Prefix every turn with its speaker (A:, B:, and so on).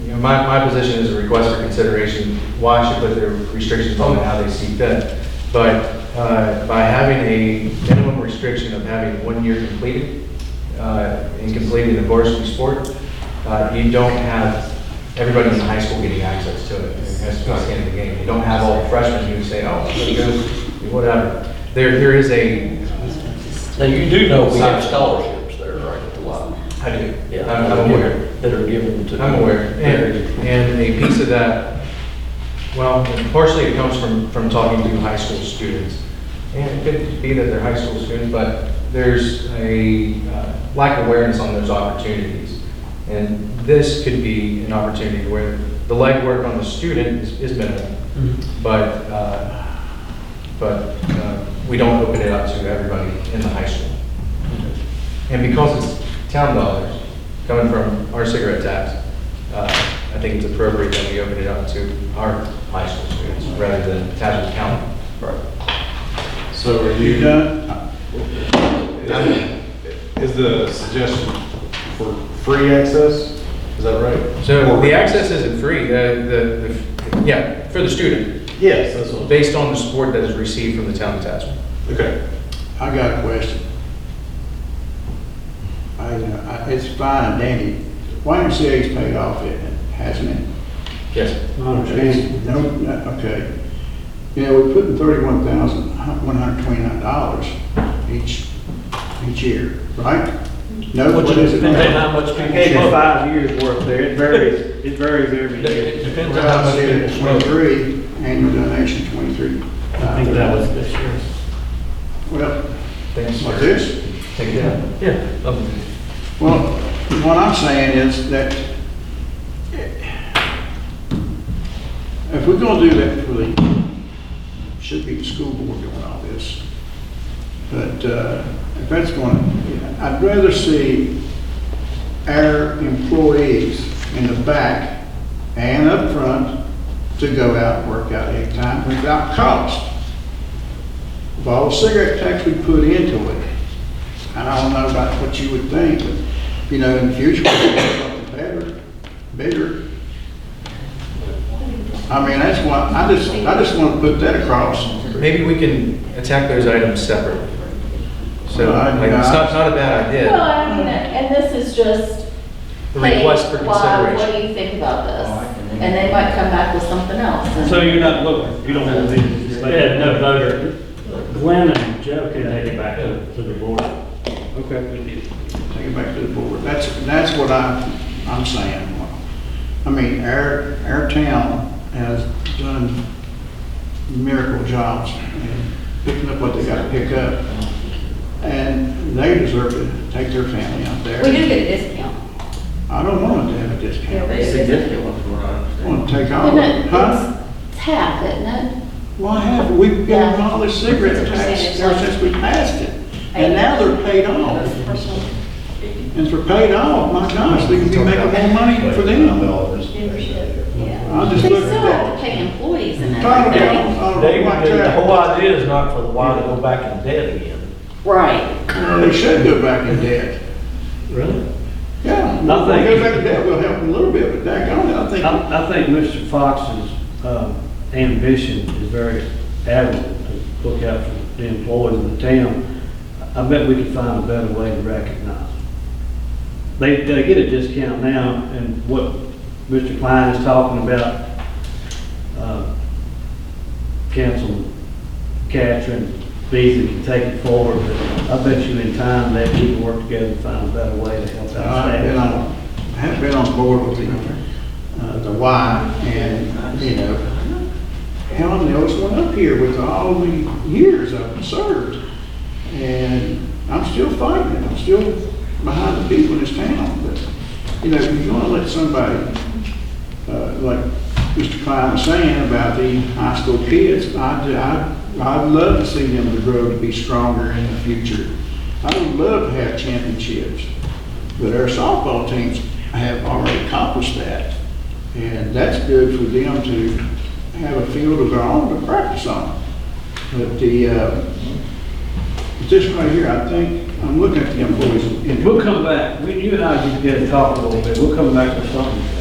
A: you know, my, my position is a request for consideration, why should put their restrictions on how they see fit. But uh, by having a minimum restriction of having one year completed, uh, in completing the varsity sport, uh, you don't have everybody in high school getting access to it. That's not the end of the game. You don't have all freshmen who say, oh, I'm gonna go," whatever. There, there is a,
B: Now, you do know we have scholarships there, right, at the Y?
A: I do,
B: Yeah,
A: I'm I'm aware.
B: That are given to.
A: I'm aware, and, and a piece of that, well, partially it comes from, from talking to high school students. And it could be that they're high school students, but there's a uh, lack of awareness on those opportunities. And this could be an opportunity where the legwork on the student is, is minimal, but, uh, but uh, we don't open it up to everybody in the high school. And because it's town dollars coming from our cigarette tax, uh, I think it's appropriate that we open it up to our high school students rather than Tazewell County.
B: Right.
C: So are
D: You
C: you,
D: done?
C: is the suggestion for free access? Is that right?
A: So
C: Or-
A: the access isn't free, the, the- the, yeah, for the student,
C: Yes, that's what.
A: based on the support that is received from the town of Tazewell.
C: Okay.
D: I got a question. I, uh, I- it's fine, Danny. YMCA's paid off, it hasn't it?
A: Yes.
D: And No, no, okay. You know, we're putting thirty-one thousand, uh, one hundred twenty-nine dollars each, each year, right? No, what is it?
E: Depends on how much
F: I
E: people
F: gave you
E: smoke.
F: five years worth there, it varies, it varies every
E: It-
F: year.
E: It depends on how
D: Well, I
E: much
D: said
E: people
D: it's
E: smoke.
D: Twenty-three, annual donation, twenty-three.
F: I think that was this year.
D: Well,
A: Thanks.
D: like this?
A: Take it down.
E: Yeah. um,
D: Well, what I'm saying is that if we're gonna do that for the, should be the school board doing all this. But uh, if that's gonna, I'd rather see our employees in the back and up front to go out and work out any time without cost. Of all the cigarette tax we put into it, and I don't know about what you would think, but, you know, in the future, we'll do something better, bigger. I mean, that's why, I just, I just want to put that across.
A: Maybe we can attack those items separately. So,
D: Well, I-
A: like, it's not, not a bad
G: Well,
A: idea,
G: I mean, and this is just.
A: the request for
G: hey, why- What
A: consideration.
G: do you think about this?
D: Oh,
G: And they might come back with something else. and-
F: So you're not looking, you don't want these.
E: Yeah, no,
F: voter.
E: Glenn and Joe can take it back to to the board.
F: Okay.
D: Take it back to the board. That's, that's what I, I'm saying. I mean, our, our town has done miracle jobs in picking up what they got to pick up. And they deserve to take their family out there.
G: We do get a discount.
D: I don't want to have a discount.
G: It's significant.
D: I want to take all,
G: Isn't
D: of it.
G: it,
D: huh?
G: it's half, isn't it?
D: Why have, we've given
G: Yeah.
D: all this cigarette tax ever since we passed it, and now they're paid off. And if they're paid off, my gosh, they can be making more money for them. I'll just
G: They
D: look at
G: still
D: that.
G: have to pay employees and
D: Talking
G: everything.
D: about, uh,
B: They,
D: like
B: the
D: that.
B: whole idea is not for the Y to go back in debt again.
G: Right.
D: Well, They should go back in debt.
F: Really?
D: Yeah,
F: I
D: well,
F: think-
D: go back in debt, will help them a little bit, but that, I think,
F: I, I think Mr. Fox's um, ambition is very admirable to look out for the employees of the town. I bet we could find a better way to recognize them. They, they get a discount now, and what Mr. Klein is talking about, uh, Councilman Catherine Beasley can take it forward, but I bet you in time that we can work together and find a better way to help out.
D: I've been on, have been on board with the, uh, the Y, and, you know, hell, and those went up here with all the years I've served. And I'm still fighting, it. I'm still behind the people in this town, but, you know, if you're gonna let somebody, uh, like Mr. Klein was saying about the high school kids, I'd, I'd, I'd love to see them to grow to be stronger in the future. I would love to have championships. But our softball teams have already accomplished that. And that's good for them to have a field of their own to practice on. But the, uh, this right here, I think, I'm looking at the employees. in-
F: We'll come back, When you and I get together and talk a little bit, we'll come back with something.